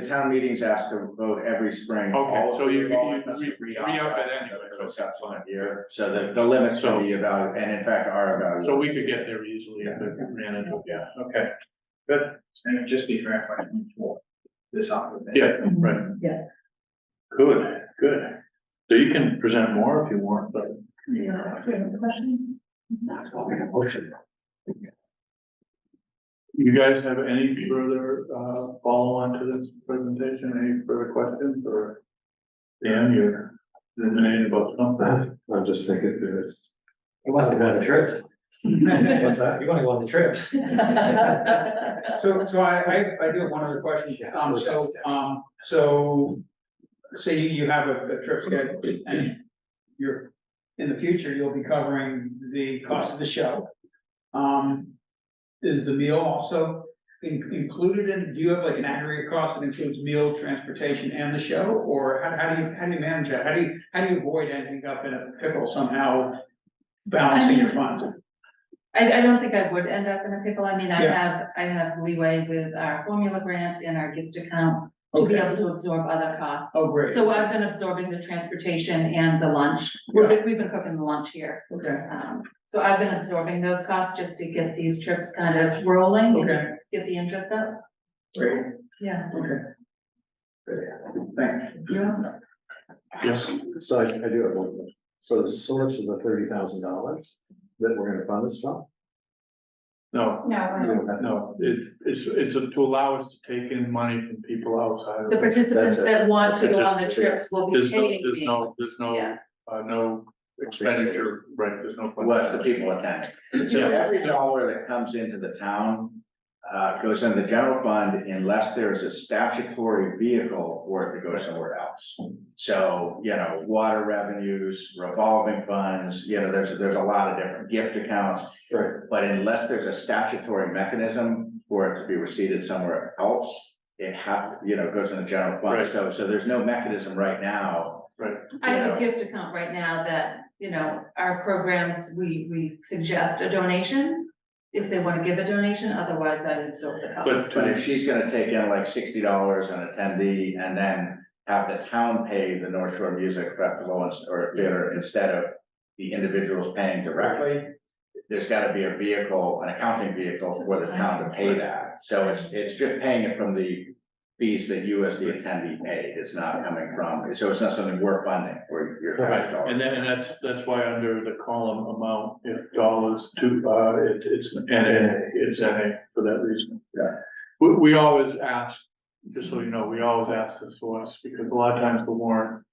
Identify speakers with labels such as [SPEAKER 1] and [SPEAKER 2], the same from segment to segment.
[SPEAKER 1] The town meeting's asked to vote every spring.
[SPEAKER 2] Okay,
[SPEAKER 1] all of
[SPEAKER 2] so you-
[SPEAKER 1] the development
[SPEAKER 2] you-
[SPEAKER 1] must
[SPEAKER 2] you
[SPEAKER 1] agree
[SPEAKER 2] re-up it
[SPEAKER 1] authorized
[SPEAKER 2] anyway,
[SPEAKER 1] for
[SPEAKER 2] so-
[SPEAKER 1] the subsequent year, so the, the limits
[SPEAKER 2] So-
[SPEAKER 1] will be evaluated, and in fact are evaluated.
[SPEAKER 2] So we could get there easily if it ran into, yeah, okay,
[SPEAKER 3] Good, and it'd just be for FY twenty-four, this opportunity.
[SPEAKER 2] yeah, right.
[SPEAKER 4] Mm-hmm. Yeah.
[SPEAKER 2] Good, good. So you can present more if you want, but.
[SPEAKER 4] Yeah, do you have questions?
[SPEAKER 1] That's what we have motion.
[SPEAKER 2] You guys have any further, uh, follow-on to this presentation, any further questions, or? Dan, you're ruminating about something?
[SPEAKER 5] I'm just thinking uh, through it. You want to go on a trip? What's that? You want to go on the trip?
[SPEAKER 3] So, so I, I, I do have one other question, um, so, um, so, say you have a, a trip scheduled, and you're, in the future, you'll be covering the cost of the show. Um, is the meal also in- included in, do you have like an aggregate cost that includes meal, transportation, and the show? Or how, how do you, how do you manage that, how do you, how do you avoid ending up in a pickle somehow balancing your funds?
[SPEAKER 6] I, I don't think I would end up in a pickle. I mean, I
[SPEAKER 3] Yeah.
[SPEAKER 6] have, I have leeway with our formula grant and our gift account to be
[SPEAKER 3] Okay.
[SPEAKER 6] able to absorb other costs.
[SPEAKER 3] Oh, great,
[SPEAKER 6] So I've been absorbing the transportation and the lunch. We've, been- we've been cooking the lunch here.
[SPEAKER 3] okay,
[SPEAKER 6] Um, so I've been absorbing those costs just to get these trips kind of rolling and
[SPEAKER 3] okay,
[SPEAKER 6] get the interest up.
[SPEAKER 3] great,
[SPEAKER 6] Yeah.
[SPEAKER 3] okay. Great, Thanks.
[SPEAKER 2] Yes.
[SPEAKER 5] So I, I do have one. question. So the source of the thirty thousand dollars that we're gonna fund this from?
[SPEAKER 2] No,
[SPEAKER 5] You
[SPEAKER 6] No.
[SPEAKER 5] don't have-
[SPEAKER 2] no, it, it's, it's to allow us to take in money from people outside of.
[SPEAKER 6] The participants
[SPEAKER 5] That's it.
[SPEAKER 6] that want to go
[SPEAKER 2] Just-
[SPEAKER 6] on the trips will be
[SPEAKER 2] There's no,
[SPEAKER 6] paying.
[SPEAKER 2] there's
[SPEAKER 6] me.
[SPEAKER 2] no, there's no,
[SPEAKER 6] Yeah.
[SPEAKER 2] uh, no expenditure, right, there's no.
[SPEAKER 1] Was the people attending. So
[SPEAKER 2] Yeah.
[SPEAKER 1] every dollar that comes into the town, uh, goes in the general fund unless there is a statutory vehicle for it to go somewhere else. So, you know, water revenues, revolving funds, you know, there's, there's a lot of different gift accounts.
[SPEAKER 5] Right.
[SPEAKER 1] But unless there's a statutory mechanism for it to be received somewhere else, it have, you know, goes in the general
[SPEAKER 2] Right.
[SPEAKER 1] fund. So, so there's no mechanism right now.
[SPEAKER 6] I have a gift account right now that, you know, our programs, we, we suggest a donation. If they wanna give a donation, otherwise I absorb the cost.
[SPEAKER 2] But-
[SPEAKER 1] But if she's gonna take in like sixty dollars an attendee and then have the town pay the North Shore Music Festival ins- or theater instead of the individuals paying directly, there's gotta be a vehicle, an accounting vehicle for the town to pay that. So it's, it's just paying it from the fees that you as the attendee paid. It's not coming from, so it's not something we're funding for your
[SPEAKER 2] Right,
[SPEAKER 1] tax dollars.
[SPEAKER 2] and then, and that's, that's why under the column amount, if dollars to, uh, it, it's an NA, it's NA for that reason.
[SPEAKER 1] Yeah.
[SPEAKER 2] We, we always ask, just so you know, we always ask this to us, because a lot of times the warrant,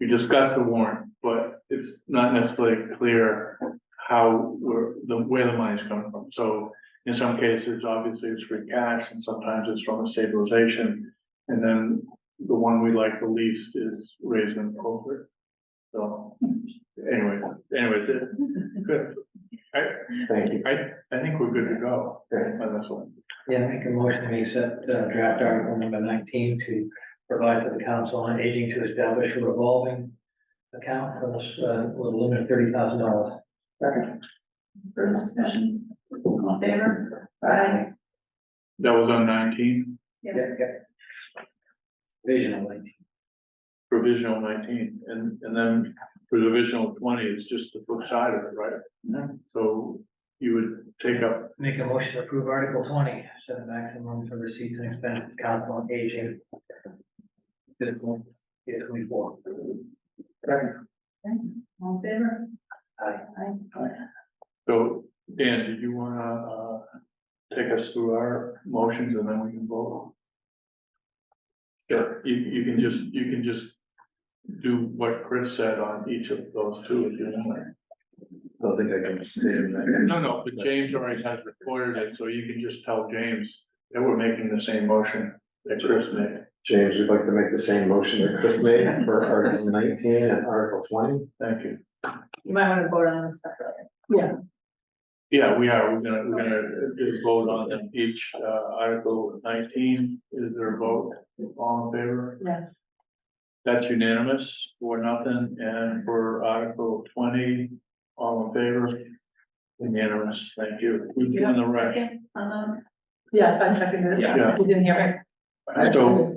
[SPEAKER 2] we discuss the warrant, but it's not necessarily clear how, where, the, where the money's coming from. So in some cases, obviously it's free cash, and sometimes it's from a stabilization, and then the one we like the least is raised and appropriate. So, anyway, anyways, it, good. I,
[SPEAKER 5] Thank you.
[SPEAKER 2] I, I think we're good to go
[SPEAKER 5] Yes.
[SPEAKER 2] on this one.
[SPEAKER 7] Yeah, make a motion, we accept uh, draft article number nineteen to provide for the council on aging to establish a revolving account for this, uh, with a limit of thirty thousand dollars.
[SPEAKER 4] Further discussion? All in favor? Aye.
[SPEAKER 2] That was on nineteen,
[SPEAKER 7] Visionally.
[SPEAKER 2] provisional nineteen, and, and then provisional twenty is just the flip side of it, right? So you would take up,
[SPEAKER 7] Make a motion to approve Article twenty, set a maximum for receipts and expenses council on aging. Fiscal year twenty-four.
[SPEAKER 4] All in favor?
[SPEAKER 7] Aye.
[SPEAKER 4] Aye.
[SPEAKER 2] so Dan, did you wanna, uh, take us through our motions and then we can vote? Sure, you, you can just, you can just do what Chris said on each of those two, if you want.
[SPEAKER 5] I don't think I can stay in that.
[SPEAKER 2] No, no, but James already has recorded it, so you can just tell James that we're making the same motion that Chris made.
[SPEAKER 5] James, would you like to make the same motion that Chris made for Article nineteen and Article twenty?
[SPEAKER 2] Thank you.
[SPEAKER 6] You might wanna vote on this stuff later.
[SPEAKER 2] Yeah, we are, we're gonna, we're gonna do a vote on them each, uh, article nineteen, is there a vote, all in favor?
[SPEAKER 6] Yes.
[SPEAKER 2] That's unanimous, for nothing, and for article twenty, all in favor? Unanimous, thank you, we've done the right,
[SPEAKER 4] Second, um, Yes, I seconded it.
[SPEAKER 2] Yeah.
[SPEAKER 4] You didn't hear
[SPEAKER 2] so,